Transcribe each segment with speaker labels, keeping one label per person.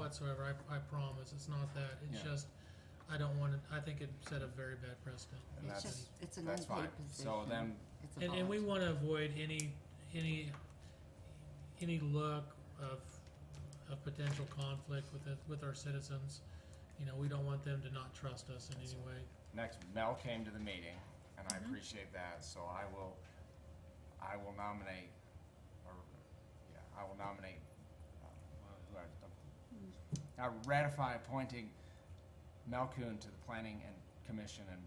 Speaker 1: whatsoever, I, I promise, it's not that, it's
Speaker 2: Yeah.
Speaker 1: just, I don't want to, I think it set a very bad precedent.
Speaker 2: And
Speaker 3: It's
Speaker 2: that's,
Speaker 3: just, it's an
Speaker 2: that's fine.
Speaker 3: unpaid position.
Speaker 2: So then,
Speaker 3: It's a
Speaker 1: And, and we
Speaker 3: volunteer.
Speaker 1: want to avoid any, any, any look of, of potential conflict with, the- with our citizens. You know, we don't want them to not trust us in any way.
Speaker 2: next, Mel came to the meeting, and I appreciate that, so I will, I will nominate, or, yeah, I will nominate, uh, who I- I ratify appointing Mel Kuhn to the Planning and Commission and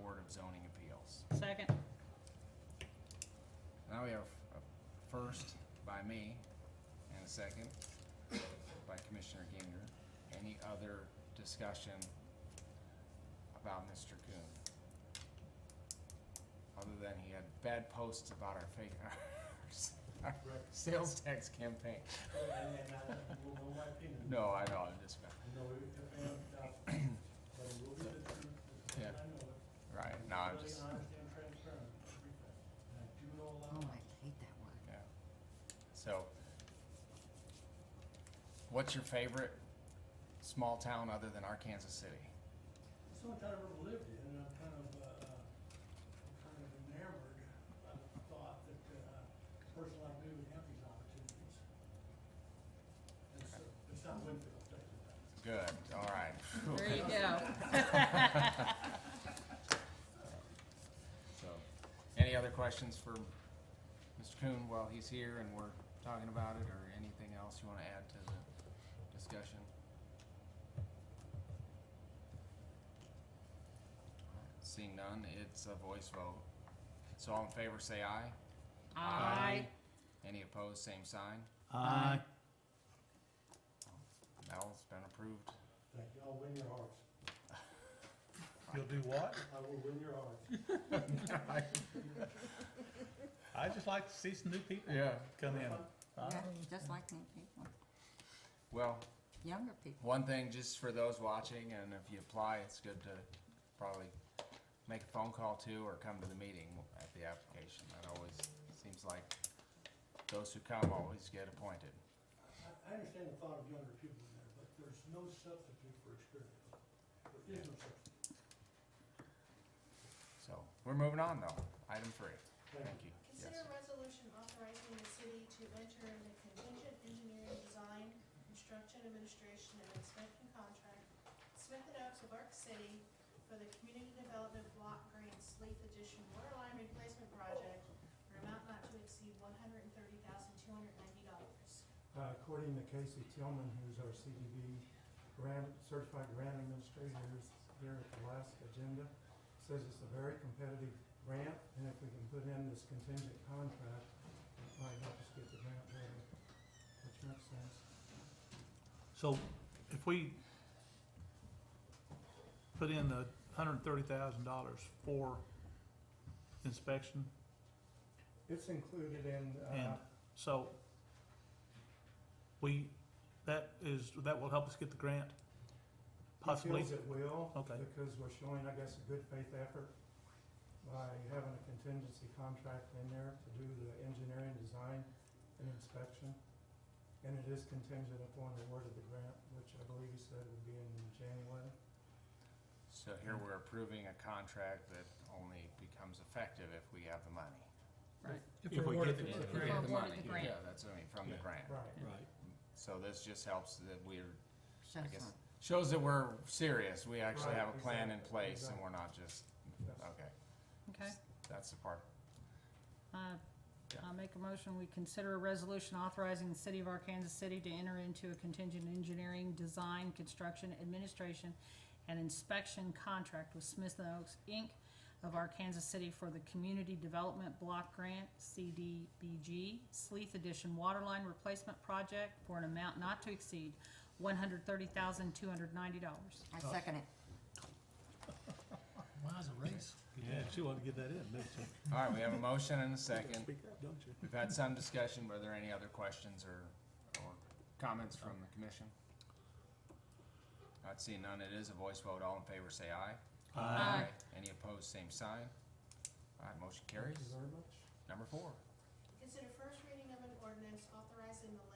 Speaker 2: Board of Zoning Appeals.
Speaker 4: Second.
Speaker 2: Now we have a first by me and a second by Commissioner Ginger. Any other discussion about Mr. Coon? Other than he had bad posts about our fake, our sales tax campaign. No, I know, I'm just, Yeah. right, no, I'm just,
Speaker 3: Oh, I hate that word.
Speaker 2: yeah. So, what's your favorite small town other than Arkansas City?
Speaker 5: It's the only town I've ever lived in, and I'm kind of, uh, I'm kind of enamored by the thought that, uh, a person like me would have these opportunities. It's, uh, it's not Winfield, I'll tell you that.
Speaker 2: Good, all right.
Speaker 4: There you go.
Speaker 2: So, any other questions for Mr. Kuhn while he's here and we're talking about it, or anything else you wanna add to the discussion? Seeing none, it's a voice vote. So all in favor, say aye.
Speaker 4: Aye.
Speaker 2: Any opposed, same sign. Mel's been approved.
Speaker 5: Thank you, I'll win your hearts.
Speaker 6: You'll do what?
Speaker 5: I will win your hearts.
Speaker 6: i just like to see some new people
Speaker 2: Yeah.
Speaker 6: come in.
Speaker 3: Yeah, just like new people,
Speaker 2: Well,
Speaker 3: younger people.
Speaker 2: One thing, just for those watching, and if you apply, it's good to probably make a phone call too, or come to the meeting at the application. That always seems like those who come always get appointed.
Speaker 5: I, I understand the thought of younger people in there, but there's no substitute for experience. There is no substitute.
Speaker 2: So, we're moving on though, item three,
Speaker 5: Thank
Speaker 2: thank you. Yes.
Speaker 7: Consider a resolution authorizing the city to enter into contingent engineering design, construction, administration, and inspection contract, Smith and Oaks of Arc City for the Community Development Block Grant Sleep Edition Water Line Replacement Project for an amount not to exceed one hundred and thirty thousand, two hundred and ninety dollars.
Speaker 8: Uh, According to Casey Tillman, who's our CDB grant, certified grant administrator who's here at the last agenda, says it's a very competitive grant, and if we can put in this contingent contract, it might help us get the grant better, which makes sense.
Speaker 6: So if we put in the hundred and thirty thousand dollars for inspection,
Speaker 8: It's included in,
Speaker 6: And-
Speaker 8: uh,
Speaker 6: so we, that is, that will help us get the grant?
Speaker 8: he
Speaker 6: Possibly?
Speaker 8: feels it will,
Speaker 6: Okay.
Speaker 8: because we're showing, I guess, a good faith effort by having a contingency contract in there to do the engineering, design, and inspection. And it is contingent upon the award of the grant, which I believe he said would be in January.
Speaker 2: So here we're approving a contract that only becomes effective if we have the money.
Speaker 6: If we
Speaker 1: awarded
Speaker 6: get
Speaker 1: the
Speaker 6: the
Speaker 1: grant.
Speaker 6: grant.
Speaker 4: If we're awarded the grant.
Speaker 2: Yeah, that's, I mean, from the
Speaker 6: Yeah.
Speaker 2: grant.
Speaker 8: Right.
Speaker 6: Right.
Speaker 2: So this just helps that we're
Speaker 3: Shows
Speaker 2: guess-
Speaker 3: up.
Speaker 2: Shows that we're serious, we actually
Speaker 8: Right,
Speaker 2: have a plan in
Speaker 8: exactly,
Speaker 2: place and
Speaker 8: exactly.
Speaker 2: we're not just,
Speaker 8: Yes.
Speaker 2: okay,
Speaker 4: Okay.
Speaker 2: that's the part.
Speaker 4: Uh, I'll make a motion, we consider a resolution authorizing the city of Arkansas City to enter into a contingent engineering, design, construction, administration, and inspection contract with Smith and Oaks, Inc. of Arkansas City for the Community Development Block Grant, CDBG, Sleeth Edition Waterline Replacement Project for an amount not to exceed one hundred thirty thousand, two hundred ninety dollars.
Speaker 3: I second it.
Speaker 1: Wow, it's a race.
Speaker 6: Yeah, she wanted to get that in, didn't she?
Speaker 2: All right, we have a motion and a second.
Speaker 6: Speak up, don't you?
Speaker 2: We've had some discussion. Were there any other questions or, or comments from the commission? Not seeing none. It is a voice vote. All in favor, say aye.
Speaker 4: Aye.
Speaker 2: Any opposed, same sign. All right, motion carries.
Speaker 8: Thank you very much.
Speaker 2: Number four.
Speaker 7: Consider first reading of an ordinance authorizing the